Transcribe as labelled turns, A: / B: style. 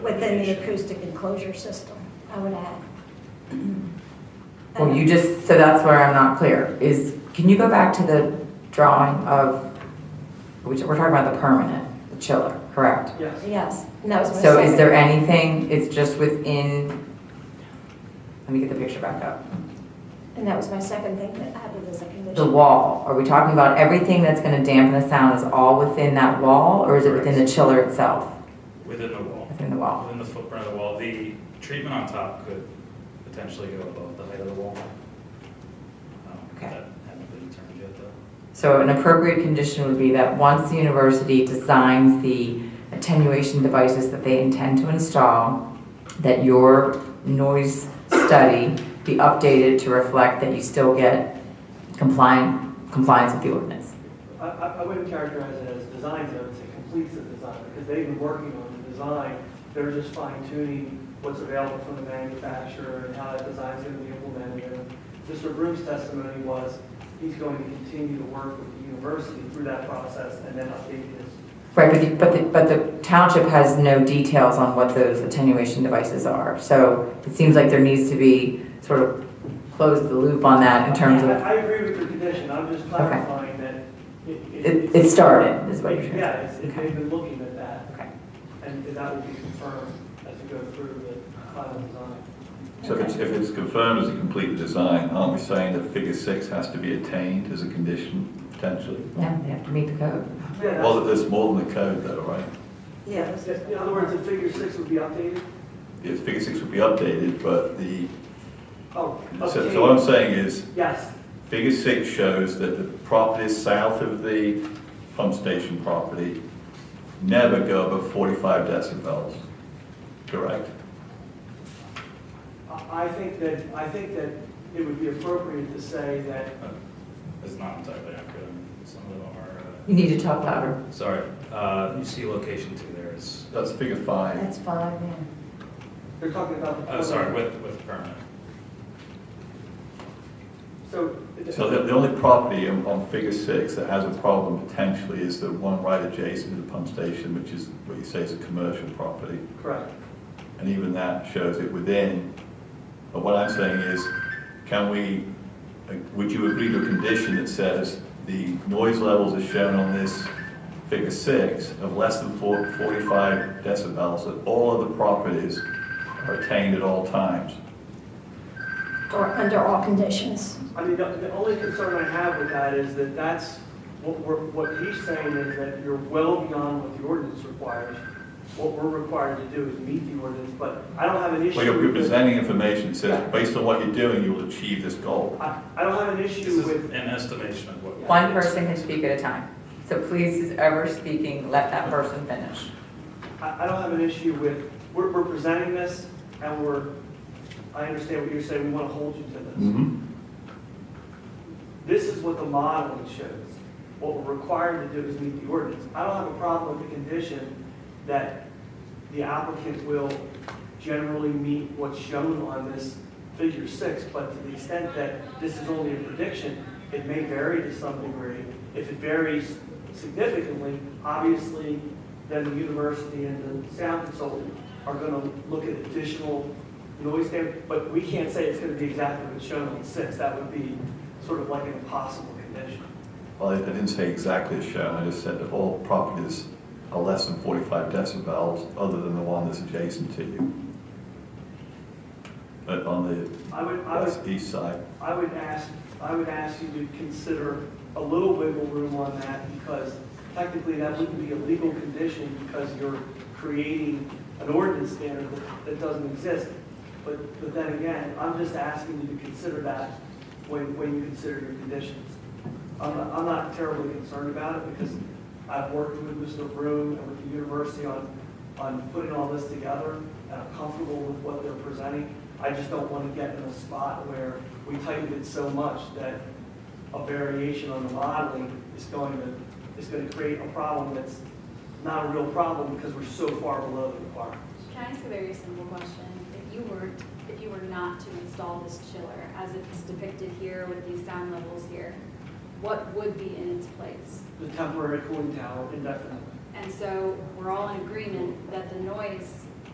A: Within the
B: location.
A: acoustic enclosure system, I would add.
C: Well, Oh, you just, so that's where I'm not clear, is, can you go back to the drawing of, which, we're talking about the permanent, the chiller, correct?
B: Yes.
A: Yes, and that was my
C: So is
A: second.
C: there anything, it's just within, let me get the picture back up,
A: And that was my second thing that added as a
C: the
A: condition.
C: wall, are we talking about everything that's gonna dampen the sound is all within that wall, or is it within the chiller itself?
B: Within the wall,
C: Within the wall,
B: within the footprint of the wall. The treatment on top could potentially go above the height of the wall. Um,
C: Okay.
B: That hasn't been determined yet, though.
C: so an appropriate condition would be that once the university designs the attenuation devices that they intend to install, that your noise study be updated to reflect that you still get compliant, compliance with the ordinance.
D: I, I I wouldn't characterize it as design zones, it completes the design, because they've been working on the design. They're just fine tuning what's available from the manufacturer and how that design's gonna be implemented. And Mr. Broom's testimony was, he's going to continue to work with the university through that process and then update his.
C: Right, but the, but the, but the township has no details on what those attenuation devices are. So it seems like there needs to be sort of close the loop on that in terms
D: I,
C: of,
D: I agree with your condition, I'm just clarifying that it,
C: it, it started, is what you're saying.
D: Yeah, it's, it-
C: Okay.
D: they've been looking at that,
C: Okay.
D: and that will be confirmed as we go through the final design.
E: So if it's, if it's confirmed as a complete design, aren't we saying that figure six has to be attained as a condition, potentially?
C: Yeah, they have to meet the code.
D: Yeah, that's-
E: Well, there's more than the code though, right?
A: Yeah.
D: In other words, the figure six would be updated?
E: If figure six would be updated, but the,
D: Oh,
E: so, so what I'm
D: updated,
E: saying is,
D: yes,
E: figure six shows that the properties south of the pump station property never go above forty-five decibels, correct?
D: I I think that, I think that it would be appropriate to say that,
B: It's not entirely accurate. I mean, Some of them are,
C: You need to talk louder.
B: uh, sorry, uh, you see location two there is,
E: That's figure five.
A: That's five, yeah.
D: they're talking about. the
B: oh, sorry, with, with permit.
D: So.
E: So the, the only property on, on figure six that has a problem potentially is the one right adjacent to the pump station, which is what you say is a commercial property.
D: Correct.
E: And even that shows it within. But what I'm saying is, can we, uh, would you agree to a condition that says the noise levels as shown on this figure six of less than four- 45 decibels, that all other properties are attained at all times?
A: Or under all conditions.
D: I mean, the, the only concern I have with that is that that's, what we're, what he's saying is that you're well beyond what the ordinance requires. What we're required to do is meet the ordinance, but I don't have an issue.
E: Well, you're you're
D: with-
E: presenting information that says, based on what you're doing, you will achieve this goal.
D: I, I don't have an
B: This
D: issue
B: is
D: with
B: an estimation of what.
C: One person can speak at a time. So please, who's ever speaking, let that person finish.
D: I, I don't have an issue with, we're, we're presenting this, and we're, I understand what you're saying, we want to hold you to this. This is what the modeling shows. What we're required to do is meet the ordinance. I don't have a problem with the condition that the applicant will generally meet what's shown on this figure six, but to the extent that this is only a prediction, it may vary to some degree. If it varies significantly, obviously, then the university and the sound consultant are gonna look at additional noise standard, but we can't say it's gonna be exactly what's shown on six, that would be sort of like an impossible condition.
E: Well, I I didn't say exactly as shown, I just said that all properties are less than 45 decibels, other than the one that's adjacent to you. But on the
D: I would, I would
E: west east side,
D: I would ask, I would ask you to consider a little wiggle room on that because technically that wouldn't be a legal condition because you're creating an ordinance standard that- that doesn't exist. But, but then again, I'm just asking you to consider that when, when you consider your conditions. I'm not, I'm not terribly concerned about it because I've worked with Mr. Broom and with the university on, on putting all this together, and I'm comfortable with what they're presenting. I just don't want to get in a spot where we tightened it so much that a variation on the modeling is going to, is going to create a problem that's not a real problem because we're so far below the requirements.
F: Can I ask a very simple question? If you were, if you were not to install this chiller, as it's depicted here with these sound levels here, what would be in its place?
D: The temporary cooling tower indefinitely.
F: And so we're all in agreement that the noise